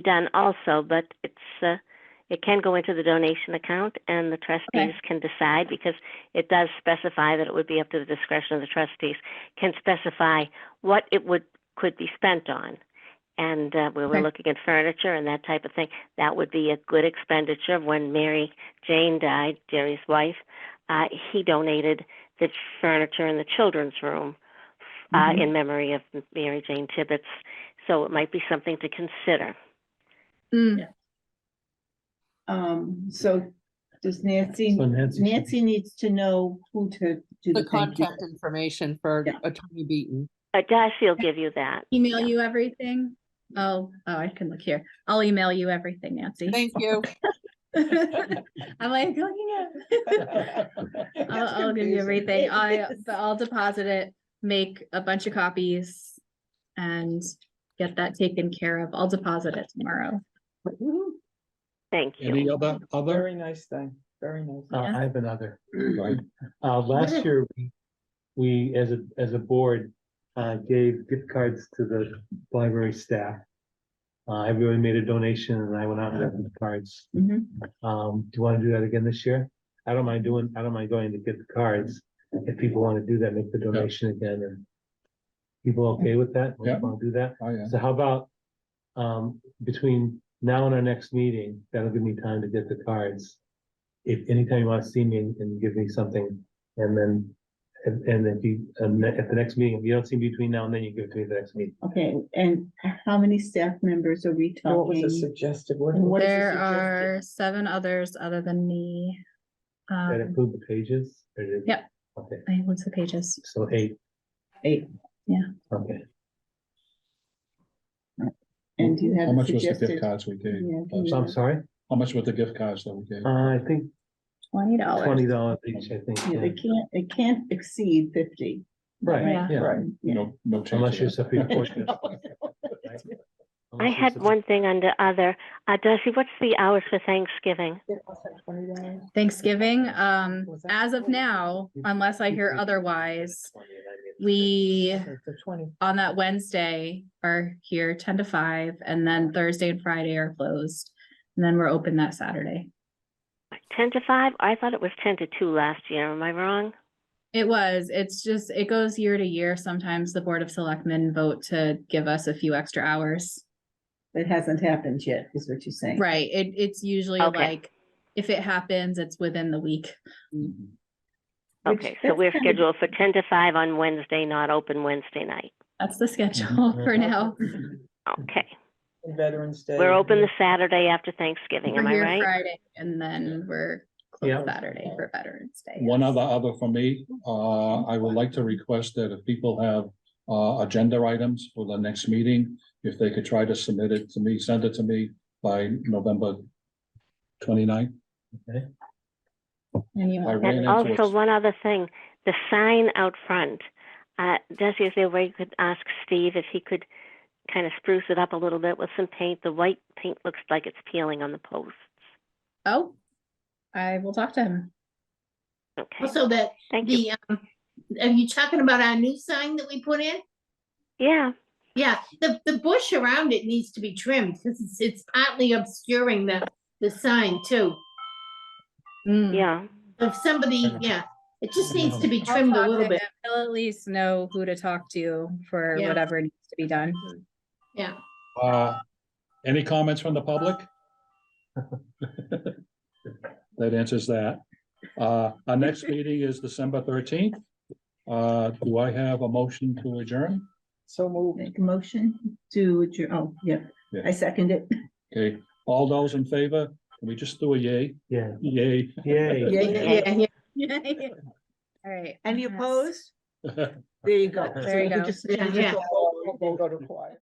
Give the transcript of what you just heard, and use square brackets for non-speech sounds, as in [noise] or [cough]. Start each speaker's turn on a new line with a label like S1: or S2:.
S1: done also, but it's, uh, it can go into the donation account and the trustees can decide because it does specify that it would be up to the discretion of the trustees, can specify what it would, could be spent on. And, uh, we were
S2: Okay.
S1: looking at furniture and that type of thing. That would be a good expenditure. When Mary Jane died, Jerry's wife, uh, he donated the furniture in the children's room uh,
S2: Mhm.
S1: in memory of Mary Jane Tibbetts. So it might be something to consider.
S2: Mm,
S3: Um, so does Nancy,
S4: So Nancy should-
S3: Nancy needs to know who to do
S5: The
S3: the thing.
S5: contact information for
S3: Yeah.
S5: Attorney Beaton.
S1: Uh, Darcy will give you that.
S2: Email you everything? Oh, oh, I can look here. I'll email you everything, Nancy. [laughs]
S5: Thank you.
S2: I'm like, looking at. I'll,
S3: [laughs] That's
S2: I'll give you
S3: confusing.
S2: everything.
S3: It
S2: I,
S3: is.
S2: but I'll deposit it, make a bunch of copies and get that taken care of. I'll deposit it tomorrow.
S3: Mm-hmm.
S1: Thank
S4: Any
S1: you.
S4: other, other?
S6: Very nice thing, very nice.
S4: [laughs] Uh, I have another. one. Uh, last year, we- we, as a, as a board, uh, gave gift cards to the library staff. Uh, everyone made a donation and I went out and got the cards.
S3: Mhm.
S4: Um, do you want to do that again this year? I don't mind doing, I don't mind going to get the cards. If people want to do that, make the donation again and. People okay with that?
S7: Yeah.
S4: Want to do that?
S7: Oh, yeah.
S4: So how about, um, between now and our next meeting, that'll give me time to get the cards. If anytime you want to see me and- and give me something, and then, and, and if you, um, at the next meeting, if you don't see me between now and then, you give it to me at the next meeting.
S3: Okay, and how many staff members are we
S6: What was the
S3: talking?
S6: suggested one?
S3: And what is the
S2: There
S3: suggested-
S2: are seven others other than me.
S4: Does That
S2: Um,
S4: include the pages? Or did-
S2: Yep.
S4: Okay,
S2: I, what's the pages?
S4: so eight,
S3: Eight,
S4: okay.
S3: and you have
S7: How
S3: a
S7: much was the gift
S3: suggested.
S7: cards we gave?
S3: Yeah,
S7: Uh,
S4: So I'm sorry,
S7: How much were the gift cards that we gave?
S4: uh, I think
S2: Twenty dollars.
S4: twenty dollars each, I think,
S3: Yeah,
S4: yeah.
S3: It can't, it can't exceed fifty.
S4: right,
S2: Yeah.
S4: yeah.
S6: Right.
S3: Yeah.
S7: No, no change.
S4: Unless
S7: to
S4: you're
S7: that.
S3: [laughs]
S4: supreme court.
S1: I had one thing under other. Uh, Darcy, what's the hours for Thanksgiving?
S2: Thanksgiving, um,
S6: Was that
S2: as of
S6: forty?
S2: now, unless I
S4: Mm-hmm.
S2: hear otherwise, we
S6: The twenty.
S2: on that Wednesday are here ten to five, and then Thursday and Friday are closed. And then we're open that Saturday.
S1: Ten to five? I thought it was ten to two last year. Am I wrong?
S2: It was, it's just, it goes year to year. Sometimes the Board of Selectmen vote to give us a few extra hours.
S3: It hasn't happened yet, is what you're saying.
S2: Right, it, it's usually
S1: Okay.
S2: like, if it happens, it's within the week.
S3: Mm-hmm.
S7: Mhm.
S3: Which-
S1: Okay, so
S3: that's
S1: we're
S3: kind of-
S1: scheduled for ten to five on Wednesday, not open Wednesday night.
S2: That's the schedule for now.
S1: Okay,
S6: Veterans Day.
S1: we're open the Saturday after Thanksgiving,
S2: We're
S1: am I
S2: here
S1: right?
S2: Friday, and then we're
S4: Yeah.
S2: closed Saturday for Veterans Day.
S7: One
S2: yes.
S7: other, other for me, uh, I would like to request that if people have, uh, agenda items for the next meeting, if they could try to submit it to me, send it to me by November 29th.
S2: And you
S7: I
S2: want-
S7: ran
S1: And
S7: into
S1: also,
S7: it.
S1: one other thing, the sign out front. Uh, Desi, is there a way you could ask Steve if he could kind of spruce it up a little bit with some paint? The white paint looks like it's peeling on the posts.
S2: Oh, I will talk to him.
S1: Okay,
S8: Also that
S1: thank you.
S8: the, um, are you talking about our new sign that we put in?
S1: Yeah,
S8: Yeah, the, the bush around it needs to be trimmed because it's, it's partly obscuring the, the sign too.
S2: Mm.
S1: yeah.
S8: If somebody, yeah, it just needs to be
S2: I'll
S8: trimmed
S2: talk
S8: a
S2: to
S8: little bit.
S2: him. He'll at least know who to talk to for
S8: Yeah.
S2: whatever needs to be
S8: [laughs]
S2: done.
S8: Yeah,
S7: Uh, any comments from the public? That answers that. Uh, our next meeting is December thirteenth. Uh, do I have a motion to adjourn?
S6: So moved.
S3: Make a motion to, adjourn- oh, yeah,
S7: Yeah.
S3: I second it.
S7: Okay, all those in favor, can we just do a yay?
S4: Yeah,
S7: Yay. [laughs]
S4: yay.
S3: Yeah, yeah, yeah, yeah.
S2: All right.
S6: Any
S2: Yes.
S6: opposed?
S3: There you go. So
S2: There you
S3: we
S2: go.
S3: just-
S8: Yeah, yeah.
S6: Go to quiet.